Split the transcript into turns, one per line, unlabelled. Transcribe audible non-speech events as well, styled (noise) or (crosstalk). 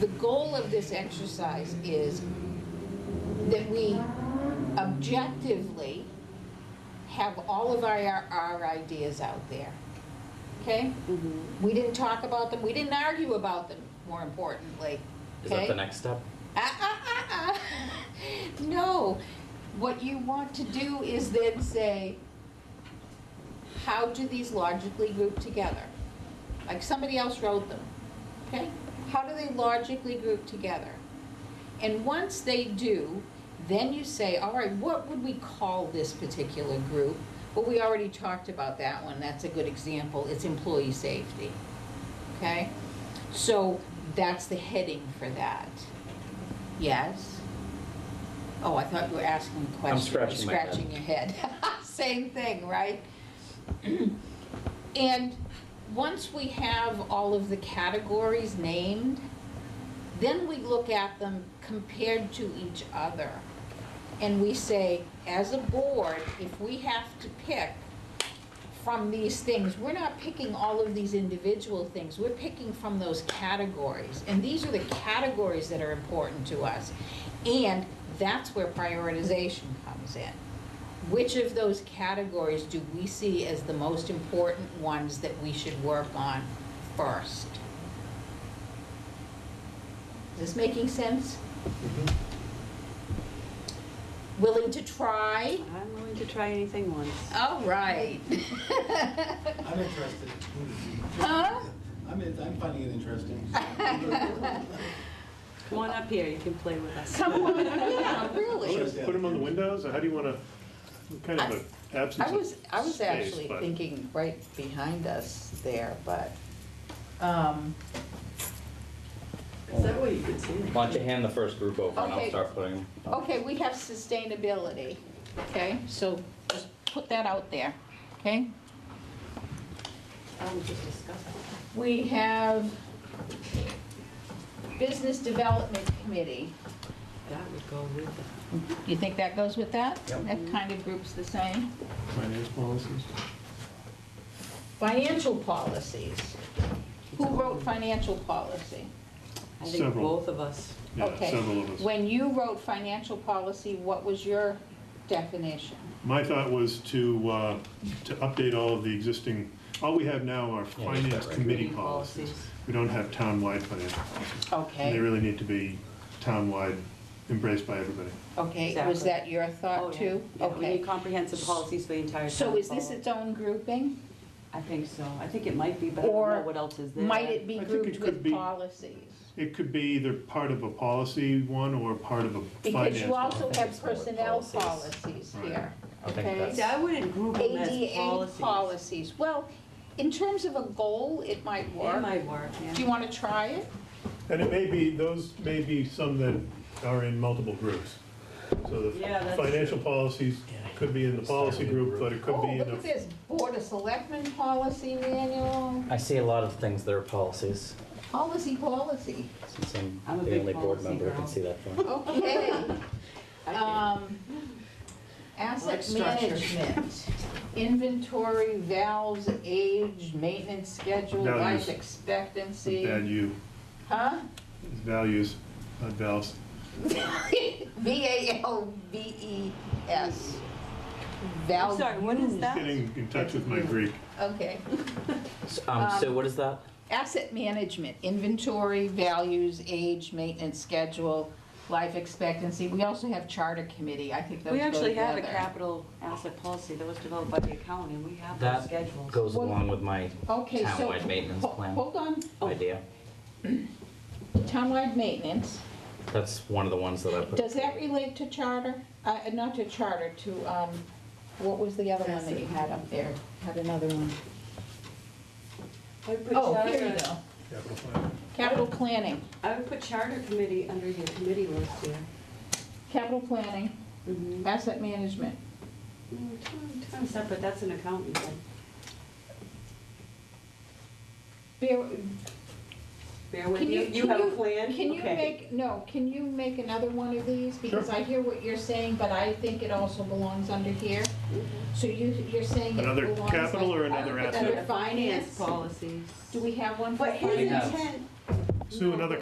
the goal of this exercise is that we objectively have all of our, our ideas out there, okay?
Mm-hmm.
We didn't talk about them, we didn't argue about them, more importantly,
Is that the
okay?
next step?
Ah, ah, ah, ah. (laughs) No, what you want to do is then say, how do these logically group together? Like somebody else wrote them, okay? How do they logically group together? And once they do, then you say, all right, what would we call this particular group? Well, we already talked about that one, that's a good example, it's employee safety, okay? So that's the heading for that. Yes? Oh, I thought you were asking a question.
scratching my head.
Scratching your head. (laughs) Same thing, right? (clears throat) And once we have all of the categories named, then we look at them compared to each other. And we say, as a board, if we have to pick from these things, we're not picking all of these individual things, we're picking from those categories. And these are the categories that are important to us. And that's where prioritization comes in. Which of those categories do we see as the most important ones that we should work on first? Is this making sense? Willing to try?
I'm willing to try anything once.
All right. (laughs)
I'm interested.
Huh?
I'm, in- I'm finding it interesting.
Come on up here, you can play with us.
Come
(laughs)
on, yeah, really.
Sure.
Put them on the windows, or how do you want to, kind of an absence
I
of
was, I was
space,
actually
but-
thinking right behind us there, but, um,
Is that way you could see me?
Why don't you hand the first group over and I'll
Okay.
start putting them.
okay, we have sustainability, okay? So just put that out there, okay?
I was just discussing.
We have Business Development Committee.
That would go with that.
You think that goes with that? That kind of groups the same.
Finance policies.
Financial policies. Who wrote financial policy?
I think
Several.
both of us.
Yeah,
Okay.
several of us.
When you wrote financial policy, what was your definition?
My thought was to, uh, to update all of the existing, all we have now
Yeah,
are
that's
finance
right.
committee
Committee
policies.
policies.
We don't have town-wide finance policies. And they
Okay,
really need to be town-wide embraced by everybody.
okay, was
Exactly.
that your
Oh,
thought
yeah.
too?
Yeah, We
Okay.
need comprehensive policies for the entire town.
So is this
hall.
its own grouping?
I think so. I think it might be, but I don't
Or
know what else is there.
Might it be
I think
grouped
it could
with
be-
policies?
It could be either part of a policy one or part of a
Because
finance
you
one.
also
I think it's
have
more
personnel
policies.
policies
Right.
here,
I think
okay?
that's-
See, I wouldn't group them as
ADA
policies.
policies. Well, in terms of a goal, it might
It
work.
might work, yeah.
Do you want to try it?
And it may be, those may be some that are in multiple groups. So
Yeah,
the
that's
financial policies could be in the policy group, but it could
Oh,
be
look
in
at
a,
this, Board of Selectmen Policy Manual,
I see a lot of things that are policies,
policy, policy.
since I'm
I'm a
the
big
only board
policy
member who can
girl.
see that one.
Okay,
(laughs) I can't.
um,
Like
asset
structure.
management, inventory, valves, age, maintenance schedule, life
Values.
expectancy.
value,
Huh?
values, not valves.
V A L V E S.
I'm sorry, what is that?
Getting in touch with my Greek.
Okay.
So, Um, so
Um,
what is that?
Asset management, inventory, values, age, maintenance schedule, life expectancy. We also have charter committee. I think those go
We
together.
actually have a capital asset policy that was developed by the accounting, and we have those
That
schedules.
goes
Well-
along with my
Okay, so.
town-wide maintenance
ho-
plan
Hold on.
Oh.
idea.
Townwide maintenance,
That's one of the ones that I put.
does that relate to charter? Uh, not to charter, to, um, what was the other one that you had up there? Had another one.
I would put
Oh, here you
charter-
go. Capital planning,
I would put charter committee under your committee list here.
capital planning,
Mm,
asset management.
Kind of separate, that's an accountant thing.
Bear-
Bear with
Can
you,
you-
you
can
have a
you-
plan?
Can you
Okay.
make, no, can you make another one of these? Because I hear what you're saying, but I think it also belongs under here. So you, you're saying it
Another
belongs
capital
like-
or another
uh,
asset?
Under finance,
policies.
do we have one for
But his
finance?
have-
intent
Sue, another